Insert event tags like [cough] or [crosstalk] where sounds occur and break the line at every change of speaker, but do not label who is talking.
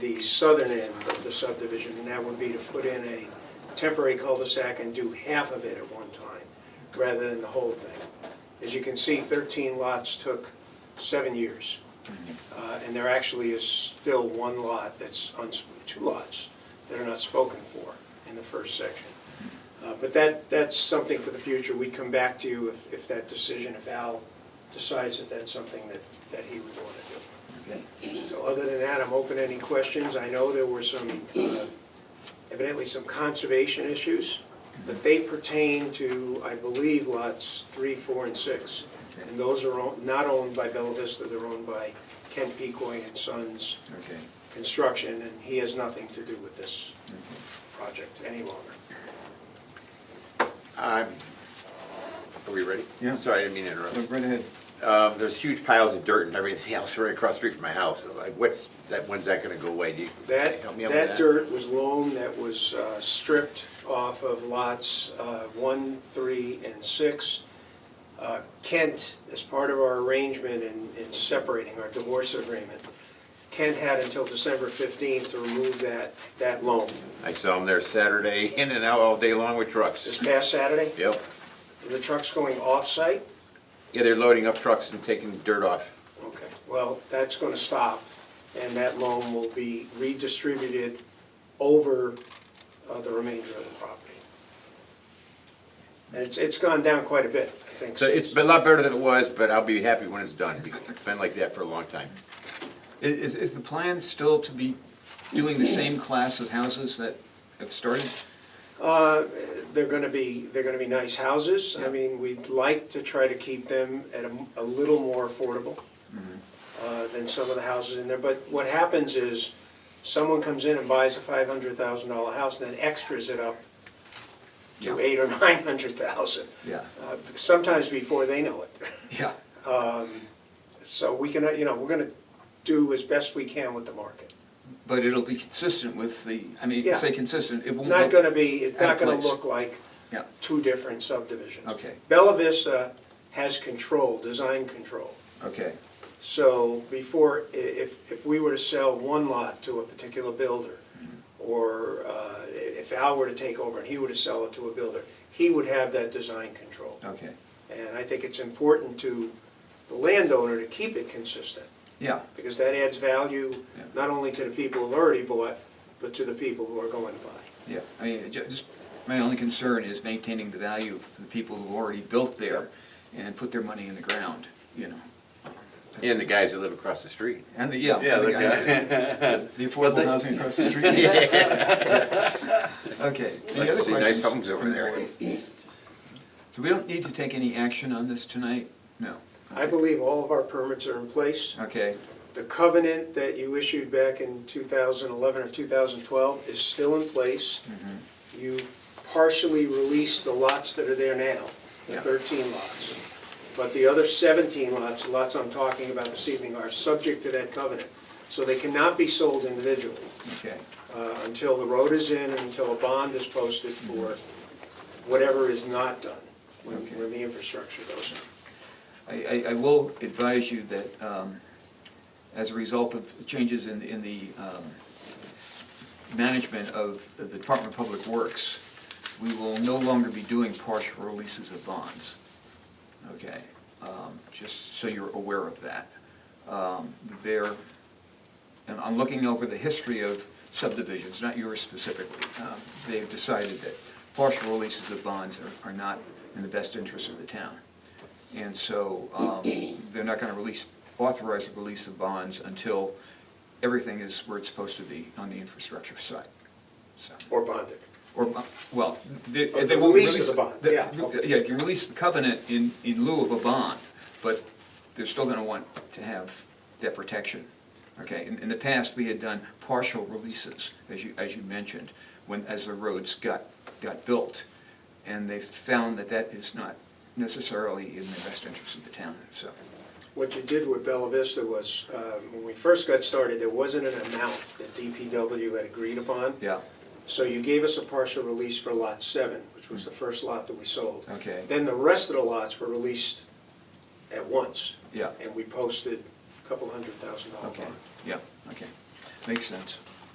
the southern end of the subdivision, and that would be to put in a temporary cul-de-sac and do half of it at one time, rather than the whole thing. As you can see, 13 lots took seven years, Uh, and there actually is still one lot that's, uns- two lots that are not spoken for in the first section. Uh, But that, that's something for the future. We'd come back to you if, if that decision, if Al decides that that's something that, that he would want to do. So other than that, I'm open to any questions. I know there were some, uh, evidently some conservation issues, but they pertain to, I believe, lots three, four, and six. And those are own- not owned by Bella Vista, they're owned by Ken Pecoy and Sons
Okay,
Construction, and he has nothing to do with this project any longer.
Um, Are we ready?
Yeah.
Sorry, I didn't mean to interrupt.
look right ahead.
Um, There's huge piles of dirt and everything [laughs] else right across the street from my house. Like, what's, that, when's that gonna go away? Do you,
That,
help me out with that?
that dirt was loam that was uh, stripped off of lots uh, one, three, and six. Uh, Kent, as part of our arrangement in, in separating our divorce agreement, Kent had until December fifteenth to remove that, that loam.
I saw them there Saturday, [laughs] in and out all day long with
This
trucks.
past Saturday,
Yep.
the truck's going off-site,
Yeah, they're loading up trucks and taking dirt off.
okay, well, that's gonna stop, and that loam will be redistributed over uh, the remainder of the property. And it's, it's gone down quite a bit, I think.
So it's a lot better than it was, but I'll be happy when it's done. It's been like that for a long time.
I- Is, is the plan still to be doing the same class of houses that have started?
Uh, They're gonna be, they're gonna be nice houses. I mean, we'd like to try to keep them at a, a little more affordable uh, than some of the houses in there. But what happens is, someone comes in and buys a five hundred thousand dollar house, and then extras it up to
Yeah.
eight or nine hundred thousand,
Yeah,
uh, sometimes before they know it.
yeah,
So we can, uh, you know, we're gonna do as best we can with the market.
but it'll be consistent with the, I mean,
Yeah.
say consistent, it won't.
Not
look-
gonna be, it's
Out
not
of
gonna
place.
look like
Yeah,
two different subdivisions.
Okay.
Bella Vista has control, design control.
okay,
So before, i- if, if we were to sell one lot to a particular builder,
Mm-hmm.
or uh, i- if Al were to take over and he were to sell it to a builder, he would have that design control.
okay,
And I think it's important to the landowner to keep it consistent,
yeah,
because that adds value
Yeah.
not only to the people who've already bought, but to the people who are going to buy.
yeah. I mean, ju- just, my only concern is maintaining the value for the people who already built there and put their money in the ground, you know.
And the guys that live across the street.
And the, yeah.
Yeah,
the
the
guy- The affordable housing across the
[laughs]
street. Okay. Any
Like,
other
see nice
questions?
homes over there.
[clears throat] So we don't need to take any action on this tonight? No.
I believe all of our permits are in place.
Okay,
The covenant that you issued back in 2011 or 2012 is still in place.
Mm-hmm.
You partially released the lots that are there now, the
Yeah.
13 lots. But the other 17 lots, the lots I'm talking about this evening, are subject to that covenant. So they cannot be sold individually
okay,
uh, until the road is in and until a bond is posted for whatever is not done, when
Mm-hmm. Okay.
when the infrastructure goes in.
I, I, I will advise you that, um, as a result of changes in, in the, um, management of the Department of Public Works, we will no longer be doing partial releases of bonds. Okay, um, just so you're aware of that. Um, there, and I'm looking over the history of subdivisions, not yours specifically. Um, They've decided that partial releases of bonds are, are not in the best interest of the town. And so, um, they're not gonna release, authorize the release of bonds until everything is where it's supposed to be on the infrastructure side, so.
Or bonded.
Or, uh, well, they,
Oh,
they
the
won't
release
release.
of the bond,
the-
yeah.
Yeah, you can release the covenant in, in lieu of a bond, but they're still gonna want to have that protection. Okay, in, in the past, we had done partial releases, as you, as you mentioned, when, as the roads got, got built. And they found that that is not necessarily in the best interest of the town, so,
What you did with Bella Vista was, uh, when we first got started, there wasn't an amount that DPW had agreed upon.
yeah,
So you gave us a partial release for Lot 7, which was the first lot that we sold.
Okay.
Then the rest of the lots were released at once,
yeah,
and we posted a couple hundred thousand dollar
okay,
bond.
yeah, okay. Makes sense.